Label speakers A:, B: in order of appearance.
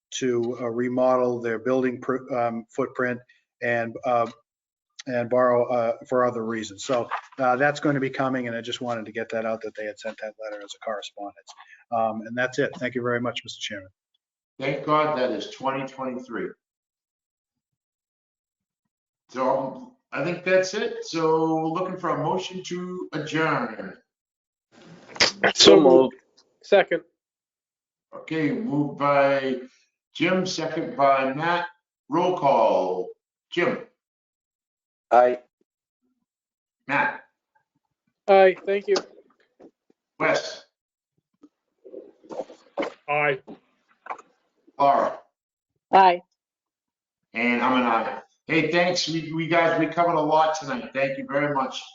A: to uh, remodel their building pr- um, footprint and, uh, and borrow uh, for other reasons. So uh, that's going to be coming, and I just wanted to get that out, that they had sent that letter as a correspondence. Um, And that's it. Thank you very much, Mr. Chairman.
B: Thank God that is 2023. So I think that's it. So looking for a motion to adjourn.
C: So moved. Second.
B: Okay, moved by Jim, second by Matt. Roll call. Jim,
D: Aye.
B: Matt,
C: Aye, thank you.
B: Wes,
C: Aye.
B: Laura,
E: Aye.
B: and I'm an aye. Hey, thanks. We, we guys, we covered a lot tonight. Thank you very much.